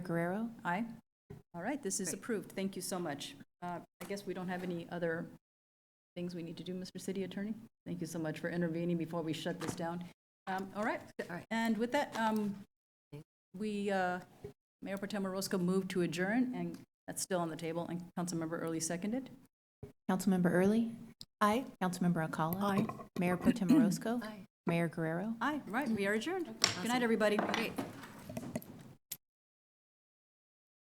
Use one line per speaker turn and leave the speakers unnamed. Guerrero?
Aye. All right, this is
Great.
approved. Thank you so much. Uh, I guess we don't have any other things we need to do, Mr. City Attorney? Thank you so much for intervening before we shut this down. Um, All right, and with that, um, we, uh, Mayor Potem Roscoe moved to adjourn, and that's still on the table, and Councilmember Early seconded.
Councilmember Early?
Aye.
Councilmember Alcala?
Aye.
Mayor Pro Tem Orozco?
Aye.
Mayor Guerrero?
Aye, right, we are adjourned. Good night, everybody.
Great.